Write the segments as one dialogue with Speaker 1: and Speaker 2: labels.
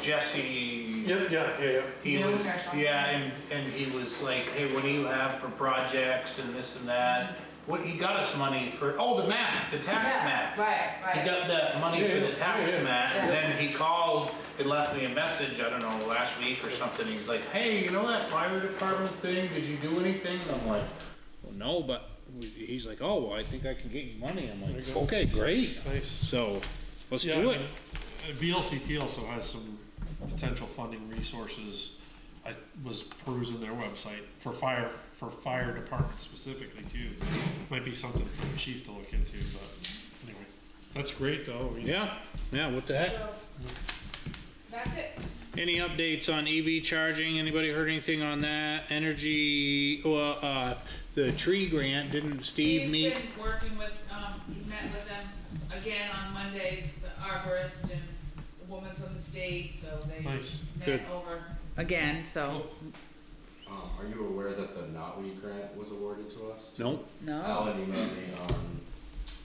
Speaker 1: Jesse.
Speaker 2: Yep, yeah, yeah, yeah.
Speaker 1: He
Speaker 3: Young
Speaker 1: was,
Speaker 3: or something.
Speaker 1: yeah, and, and he was like, hey, what do you have for projects and this and that? What, he got us money for, oh, the map, the tax
Speaker 3: Yeah,
Speaker 1: map.
Speaker 3: Right,
Speaker 1: He
Speaker 3: right.
Speaker 1: got that money for the tax
Speaker 2: Yeah, yeah, yeah.
Speaker 1: map, and
Speaker 3: Yeah.
Speaker 1: then he called, he left me a message, I don't know, last week or something, he's like, hey, you know that fire department thing, did you do anything? And I'm like, well, no, but, we- he's like, oh, well, I think I can get you money, I'm
Speaker 2: There you
Speaker 1: like,
Speaker 2: go.
Speaker 1: okay, great,
Speaker 2: Nice.
Speaker 1: so, let's
Speaker 2: Yeah,
Speaker 1: do
Speaker 2: I
Speaker 1: it.
Speaker 2: mean, uh, VLCT also has some potential funding resources. I was perusing their website for fire, for fire department specifically too. Might be something for the chief to look into, but anyway, that's great though. I mean,
Speaker 1: Yeah, yeah, what the heck?
Speaker 3: So, That's it.
Speaker 1: Any updates on EV charging? Anybody heard anything on that? Energy, well, uh, the tree grant, didn't Steve
Speaker 4: He's
Speaker 1: meet?
Speaker 4: been working with, um, he met with them again on Monday, the arborist and the woman from the state, so they
Speaker 2: Nice.
Speaker 1: Good.
Speaker 4: met over again, so,
Speaker 5: Um, are you aware that the Notweed grant was awarded to us?
Speaker 1: Nope,
Speaker 6: Oh.
Speaker 4: no.
Speaker 5: Alan emailed me um, on,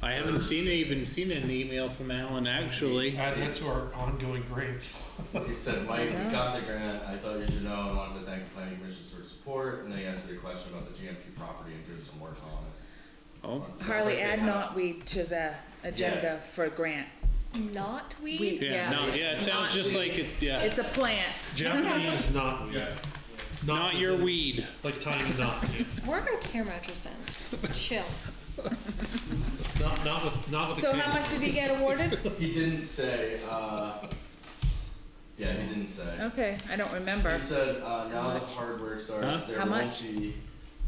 Speaker 1: I haven't seen, even seen an email from Alan, actually.
Speaker 2: Add that to our ongoing grants.
Speaker 5: he said, Mike, we got the grant, I thought you should know, I wanted to thank the planning commission for its support, and then he answered a question about the GMP property and doing some work on it.
Speaker 1: Oh,
Speaker 5: Sounds
Speaker 6: Harley,
Speaker 5: like they
Speaker 6: add
Speaker 5: have-
Speaker 6: knotweed to the agenda for grant.
Speaker 7: knotweed?
Speaker 6: Weed,
Speaker 1: yeah, no, yeah, it sounds just like it, yeah,
Speaker 6: It's a plant.
Speaker 2: Japanese knotweed.
Speaker 1: not your
Speaker 2: is in-
Speaker 1: weed.
Speaker 2: Like tying a knot, yeah.
Speaker 7: We're on camera, Tristan. Chill.
Speaker 2: Not, not with, not with a
Speaker 6: So how
Speaker 2: can.
Speaker 6: much did he get awarded?
Speaker 5: He didn't say, uh, yeah, he didn't say.
Speaker 6: Okay, I don't remember.
Speaker 5: He said, uh, now the hard work starts,
Speaker 1: Huh?
Speaker 5: there
Speaker 6: How
Speaker 5: won't
Speaker 6: much?
Speaker 5: be.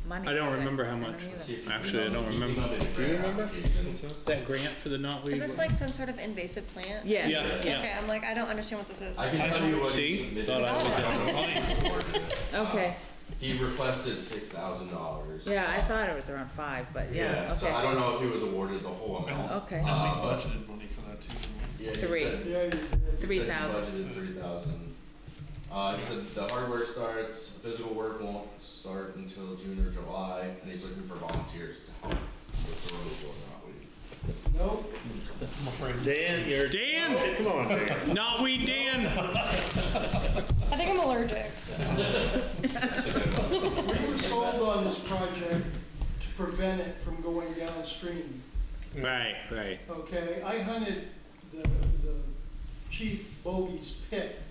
Speaker 6: Money.
Speaker 1: I don't
Speaker 6: is it?
Speaker 1: remember how
Speaker 6: I don't
Speaker 1: much.
Speaker 6: either.
Speaker 5: Let's see if he
Speaker 1: Actually, I
Speaker 5: emailed
Speaker 1: don't
Speaker 5: me. He
Speaker 1: remember.
Speaker 5: emailed me the
Speaker 1: Do you
Speaker 5: grant
Speaker 1: remember?
Speaker 5: application.
Speaker 1: That grant for the knotweed.
Speaker 7: Is this like some sort of invasive plant?
Speaker 1: Yes,
Speaker 6: Yes,
Speaker 1: yeah.
Speaker 7: Okay, I'm like, I don't understand what this is.
Speaker 5: I can tell you what he
Speaker 1: See?
Speaker 5: submitted.
Speaker 1: Thought I was
Speaker 5: I don't know if he awarded it.
Speaker 6: okay,
Speaker 5: He requested six thousand dollars.
Speaker 6: yeah, I thought it was around five, but yeah,
Speaker 5: So I
Speaker 6: okay,
Speaker 5: don't know if he was awarded the whole amount.
Speaker 6: okay,
Speaker 5: Uh,
Speaker 2: And we budgeted money for that too.
Speaker 5: Yeah, he
Speaker 6: Three.
Speaker 5: said- he said he
Speaker 6: 3,000.
Speaker 5: Budgeted three thousand. Uh, he said the hard work starts, physical work won't start until June or July, and he's looking for volunteers to help with the road going out.
Speaker 2: I'm afraid.
Speaker 8: Dan, you're.
Speaker 1: Dan,
Speaker 8: Come on, Dan.
Speaker 1: knotweed Dan.
Speaker 7: I think I'm allergic, so.
Speaker 9: We were sold on this project to prevent it from going downstream,
Speaker 1: Right, right.
Speaker 9: okay? I hunted the, the Chief Bogey's pit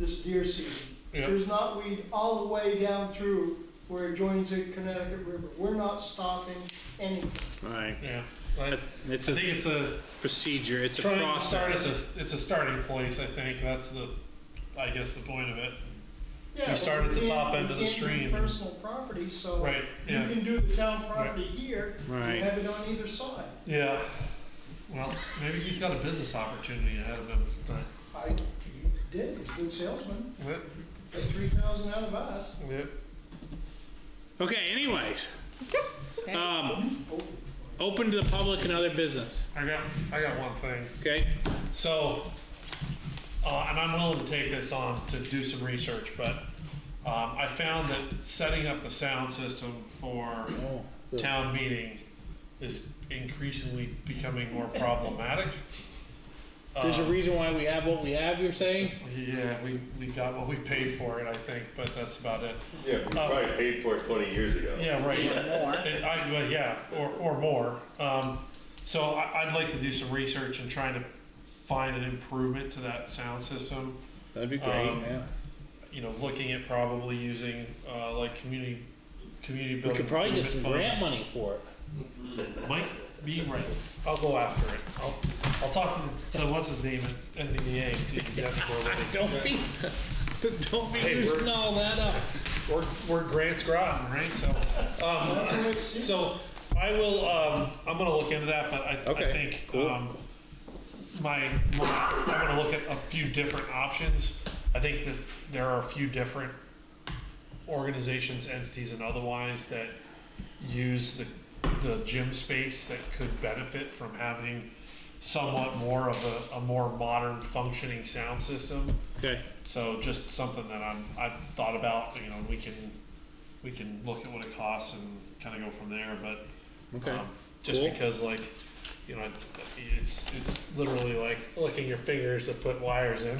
Speaker 9: this deer season.
Speaker 2: Yeah.
Speaker 9: There's knotweed all the way down through where it joins the Connecticut River. We're not stopping anything.
Speaker 1: Right.
Speaker 2: Yeah. I I
Speaker 1: It's
Speaker 2: think
Speaker 1: a
Speaker 2: it's a,
Speaker 1: procedure, it's a
Speaker 2: trying to start
Speaker 1: process.
Speaker 2: as a, it's a starting place, I think, that's the, I guess, the point of it.
Speaker 9: Yeah, but
Speaker 2: start at the
Speaker 9: can't-
Speaker 2: top end
Speaker 9: you
Speaker 2: of the
Speaker 9: can't do
Speaker 2: stream.
Speaker 9: Personal property, so.
Speaker 2: Right,
Speaker 9: You
Speaker 2: yeah.
Speaker 9: can do the town property here,
Speaker 1: Right.
Speaker 9: and have it on either side.
Speaker 2: Yeah. Well, maybe he's got a business opportunity ahead of him.
Speaker 9: I, he did, he's a good salesman, got three thousand out of us.
Speaker 1: Okay, anyways.
Speaker 6: Okay.
Speaker 1: Um, open to the public and other business,
Speaker 2: I got, I got one thing.
Speaker 1: okay?
Speaker 2: So, uh, and I'm willing to take this on to do some research, but, um, I found that setting up the sound system for town meeting is increasingly becoming more problematic.
Speaker 1: There's a
Speaker 2: Um,
Speaker 1: reason why we have what we have, you're saying?
Speaker 2: Yeah, we, we got what we paid for it, I think, but that's about it.
Speaker 10: Yeah, we probably paid for it twenty years ago.
Speaker 2: Yeah, right. It- I, well, yeah, or, or more. Um, so I, I'd like to do some research and trying to find an improvement to that sound system.
Speaker 1: That'd be
Speaker 2: great, Um, yeah. You know, looking at probably using, uh, like community, community
Speaker 1: We
Speaker 2: building.
Speaker 1: could probably get some
Speaker 2: improvement
Speaker 1: grant
Speaker 2: funds.
Speaker 1: money for it.
Speaker 2: Might be right. I'll go after it. I'll, I'll talk to, the- to what's his name at NVDA and see exactly where we're
Speaker 1: Don't be, don't be
Speaker 2: Hey, we're-
Speaker 1: using all that up.
Speaker 2: We're, we're Grant's Groton, right? So, um, so I will, um, I'm gonna look into that, but I,
Speaker 1: Okay,
Speaker 2: I think,
Speaker 1: cool.
Speaker 2: um, my, my, I'm gonna look at a few different options. I think that there are a few different organizations, entities and otherwise that use the, the gym space that could benefit from having somewhat more of a, a more modern functioning sound system.
Speaker 1: Okay,
Speaker 2: So just something that I'm, I've thought about, you know, we can, we can look at what it costs and kind of go from there, but,
Speaker 1: okay.
Speaker 2: um, just
Speaker 1: Cool.
Speaker 2: because like, you know, it's, it's literally like licking your fingers to put wires in.